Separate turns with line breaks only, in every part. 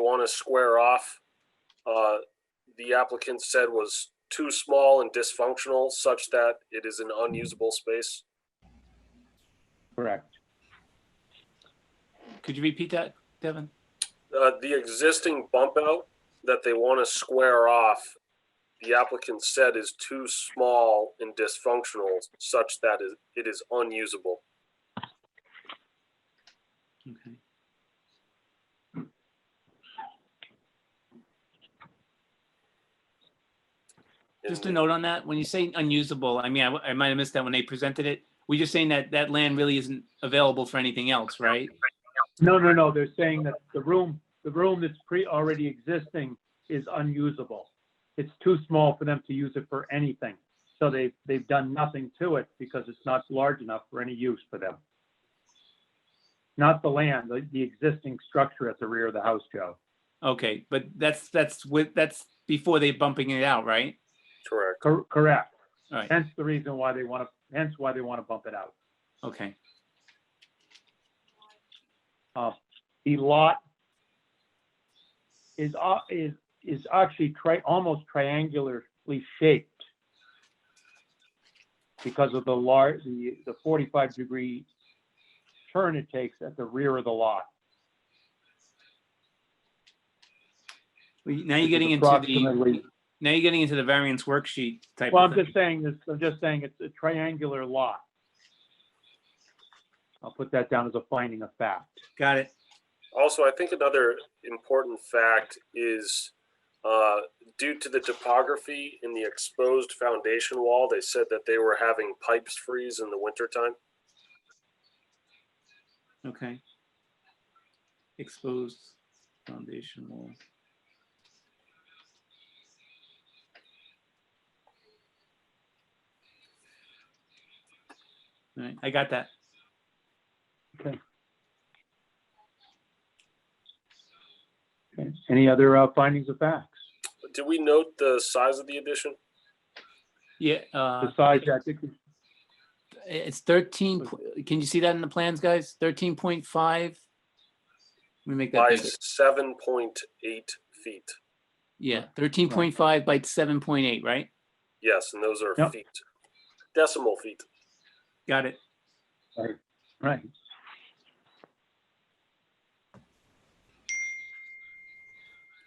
want to square off. uh, The applicant said was too small and dysfunctional such that it is an unusable space.
Correct.
Could you repeat that, Devin?
Uh, The existing bump out that they want to square off, the applicant said is too small and dysfunctional such that it- it is unusable.
Okay.
And
Just a note on that, when you say unusable, I mean, I, I might have missed that when they presented it. We're just saying that that land really isn't available for anything else, right?
No, no, no, they're saying that the room, the room that's pre, already existing is unusable. It's too small for them to use it for anything. So they, they've done nothing to it because it's not large enough for any use for them. Not the land, the, the existing structure at the rear of the house, Joe.
Okay, but that's, that's with, that's before they bumping it out, right?
Correct.
Cor- Correct.
All right.
Hence the reason why they want to, hence why they want to bump it out.
Okay,
Uh, The lot is, au- is, is actually tri, almost triangularly shaped because of the large, the, the 45 degree turn it takes at the rear of the lot.
Well, now
which
you're
is
getting into
approximately-
the, now you're getting into the variance worksheet type
Well,
of
I'm
thing.
just saying this, I'm just saying it's a triangular lot. I'll put that down as a finding of fact.
Got it.
Also, I think another important fact is uh, due to the topography in the exposed foundation wall, they said that they were having pipes freeze in the wintertime.
Okay. Exposed foundation wall. All right, I got that.
Okay. Any other uh, findings of facts?
Did we note the size of the addition?
Yeah, uh,
Besides, I think
it's thirteen, po- can you see that in the plans, guys? Thirteen point five? Let me make that
By
bigger.
seven point eight feet.
Yeah, thirteen point five by seven point eight, right?
Yes, and those are
Yep.
feet, decimal feet.
Got it.
Right.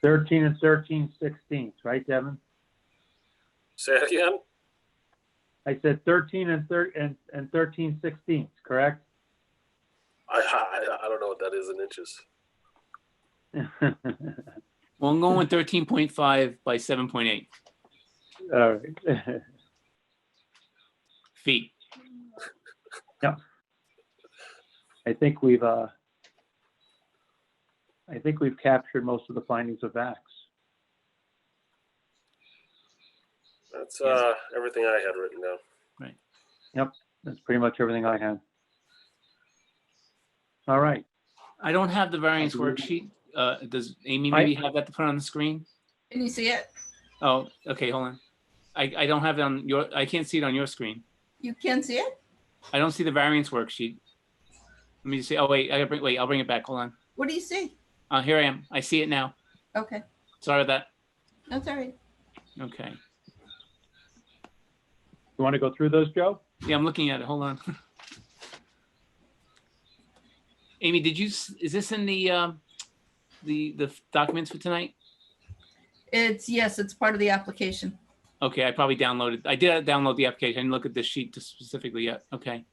Thirteen and thirteen sixteenths, right, Devin?
Say it again?
I said thirteen and thir- and, and thirteen sixteenths, correct?
I, I, I don't know what that is in inches.
All
Well, I'm going with thirteen point five by seven point eight
right.
feet.
I think we've, uh, I think we've captured most of the findings of facts.
That's
Yes.
uh, everything I had written down.
That's pretty much everything I had. All right.
I don't have the variance
believe-
worksheet. Uh, does Amy
I-
maybe have that to put on the screen?
Can you see it?
Oh, okay, hold on. I, I don't have it on your, I can't see it on your screen.
You can see it?
I don't see the variance worksheet. Let me just see, oh, wait, I gotta bring, wait, I'll bring it back, hold on.
What do you see?
Uh, here I am, I see it now.
Okay,
Sorry about
that's all right.
that. Okay.
You want to go through those, Joe?
Yeah, I'm looking at it, hold on. Amy, did you, s- is this in the, um, the, the documents for tonight?
It's, yes, it's part of the application.
Okay, I probably downloaded, I did download the application, I didn't look at this sheet specifically yet, okay.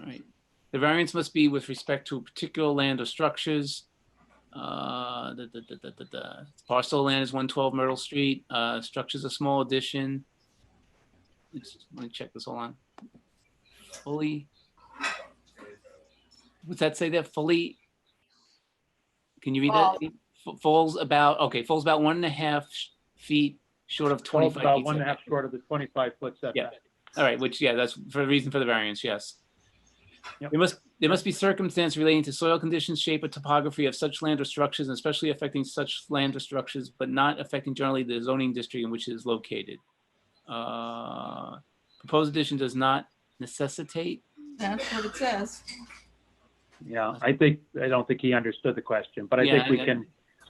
All right, the variance must be with respect to particular land or structures. Uh, the, the, the, the, the, parcel land is one twelve Myrtle Street, uh, structures a small addition. Let's, let me check this, hold on. Fully. What's that say there, fully? Can you read that? F- Falls about, okay, falls about one and a half sh- feet short of
Twelve,
twenty-five.
about
feet
one and a half
setback.
short of the twenty-five foot setback.
All right, which, yeah, that's for the reason for the variance, yes.
Yep.
There must, there must be circumstance relating to soil conditions, shape or topography of such land or structures, and especially affecting such land or structures, but not affecting generally the zoning district in which it is located. Uh, Proposed addition does not necessitate,
That's what it says.
Yeah, I think, I don't think he understood the question, but I
Yeah,
think we
I-
can,